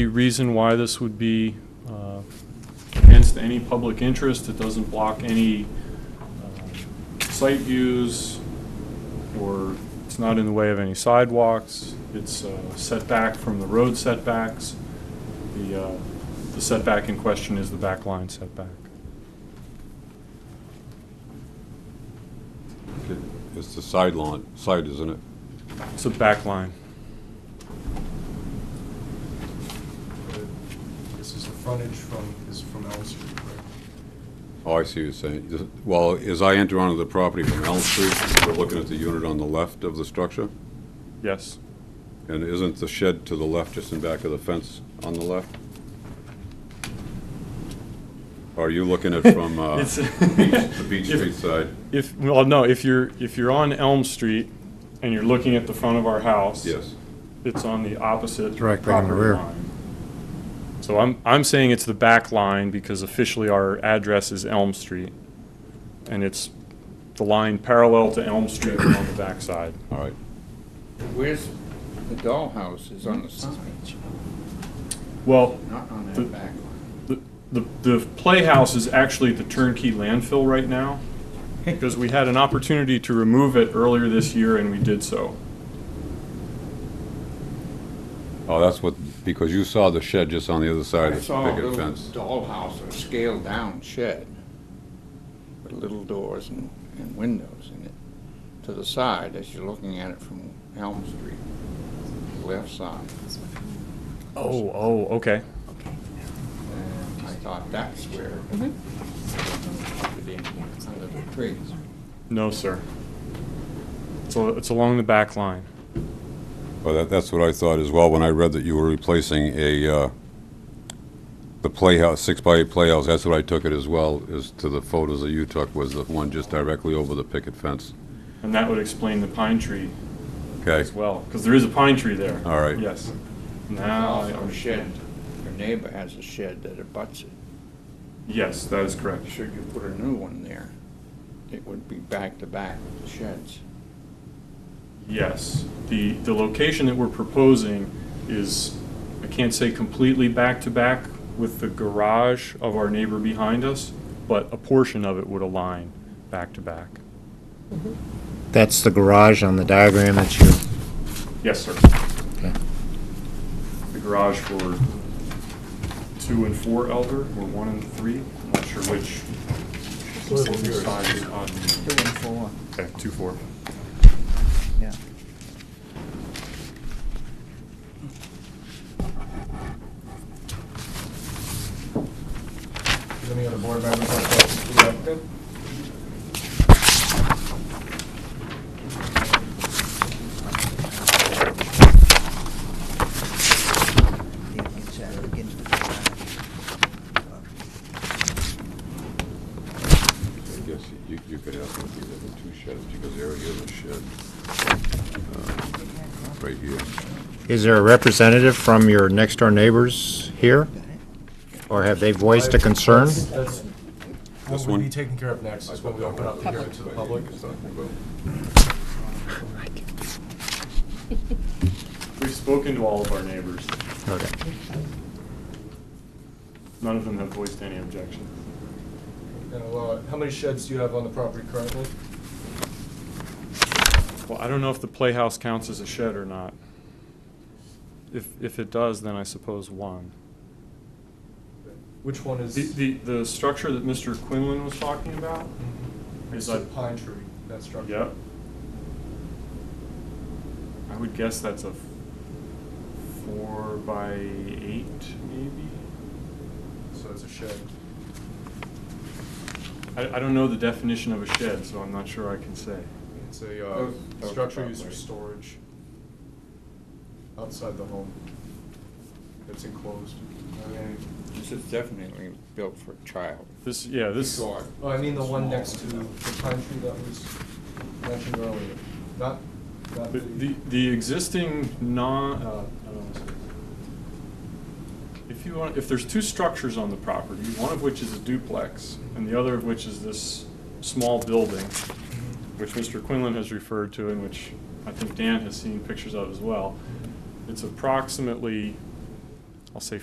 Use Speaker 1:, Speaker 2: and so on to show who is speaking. Speaker 1: The reason why this would be uh, against any public interest, it doesn't block any uh, site views, or it's not in the way of any sidewalks, it's uh, setback from the road setbacks. The uh, the setback in question is the back line setback.
Speaker 2: Okay, It's the side lawn, side, isn't it?
Speaker 1: It's a back line.
Speaker 3: This is the frontage from, is from Elm Street, correct?
Speaker 2: Oh, I see what you're saying. Is it- Well, as I enter onto the property from Elm Street, we're looking at the unit on the left of the structure,
Speaker 1: Yes,
Speaker 2: and isn't the shed to the left, just in back of the fence on the left? Or Are you looking at from uh,
Speaker 1: It's-
Speaker 2: the Beach Street side?
Speaker 1: if, well, no, if you're, if you're on Elm Street and you're looking at the front of our house.
Speaker 2: Yes.
Speaker 1: It's on the opposite
Speaker 4: Directly on the
Speaker 1: property
Speaker 4: rear.
Speaker 1: line. So I'm, I'm saying it's the back line because officially our address is Elm Street. And it's the line parallel to Elm Street on the backside.
Speaker 2: All right.
Speaker 5: Where's the dollhouse is on the side,
Speaker 1: Well,
Speaker 5: not on
Speaker 1: The-
Speaker 5: that back line.
Speaker 1: the, the the playhouse is actually the turnkey landfill right now because we had an opportunity to remove it earlier this year and we did so.
Speaker 2: Oh, that's what, because you saw the shed just on the other side
Speaker 5: I
Speaker 2: of
Speaker 5: saw
Speaker 2: the
Speaker 5: a little
Speaker 2: picket fence.
Speaker 5: dollhouse, a scaled-down shed with little doors and, and windows in it to the side as you're looking at it from Elm Street, left side.
Speaker 1: Oh, oh, okay.
Speaker 5: And I thought that's where it in under the trees.
Speaker 1: No, sir. So it's along the back line.
Speaker 2: Well, that, that's what I thought as well, when I read that you were replacing a, uh, the playhouse, six-by-eight playhouse, that's what I took it as well, as to the photos that you took, was the one just directly over the picket fence.
Speaker 1: And that would explain the pine tree
Speaker 2: Okay,
Speaker 1: as well, because there is a pine tree there.
Speaker 2: All right.
Speaker 1: Yes. Now, I
Speaker 5: Also a shed,
Speaker 1: understand.
Speaker 5: your neighbor has a shed that abuts it.
Speaker 1: Yes, that is correct.
Speaker 5: Should you put a new one there, it would be back-to-back with the sheds.
Speaker 1: Yes. The, the location that we're proposing is, I can't say completely back-to-back with the garage of our neighbor behind us, but a portion of it would align back-to-back.
Speaker 4: That's the garage on the diagram that you,
Speaker 1: Yes, sir.
Speaker 4: okay.
Speaker 1: The garage for two and four Elder, or one and three, I'm not sure which. which side is on.
Speaker 6: Two and four,
Speaker 1: Okay, two, four.
Speaker 6: yeah.
Speaker 3: Does any other board members have questions for the applicant?
Speaker 6: The inside begins with the garage.
Speaker 2: I guess you, you could ask them if there were two sheds, because there is a shed, uh, right here.
Speaker 4: is there a representative from your next-door neighbors here? Or have they voiced a concern?
Speaker 3: That's
Speaker 2: This
Speaker 3: what would be
Speaker 2: one?
Speaker 3: taken care of next, is when we open up the hearing to the public.
Speaker 1: We've spoken to all of our neighbors.
Speaker 4: Okay.
Speaker 1: None of them have voiced any objection.
Speaker 3: Now, uh, how many sheds do you have on the property currently?
Speaker 1: Well, I don't know if the playhouse counts as a shed or not. If, if it does, then I suppose one.
Speaker 3: Which one is?
Speaker 1: The, the, the structure that Mr. Quinlan was talking about?
Speaker 3: Mhm.
Speaker 1: is
Speaker 3: It's a
Speaker 1: that-
Speaker 3: pine tree, that structure.
Speaker 1: Yep. I would guess that's a f- four by eight, maybe?
Speaker 3: So it's a shed.
Speaker 1: I, I don't know the definition of a shed, so I'm not sure I can say.
Speaker 3: It's a, uh,
Speaker 5: Those- those
Speaker 3: structure used for
Speaker 5: property.
Speaker 3: storage outside the home. It's enclosed.
Speaker 5: This is definitely built for a child.
Speaker 1: This, yeah, this.
Speaker 5: Sure.
Speaker 3: Oh, I mean the one
Speaker 5: Small.
Speaker 3: next to the pine tree that was mentioned earlier, not, not
Speaker 1: The,
Speaker 3: the.
Speaker 1: the- the existing non, uh, I don't know. If you want, if there's two structures on the property, one of which is a duplex and the other of which is this small building, which Mr. Quinlan has referred to and which I think Dan has seen pictures of as well. It's approximately I'll say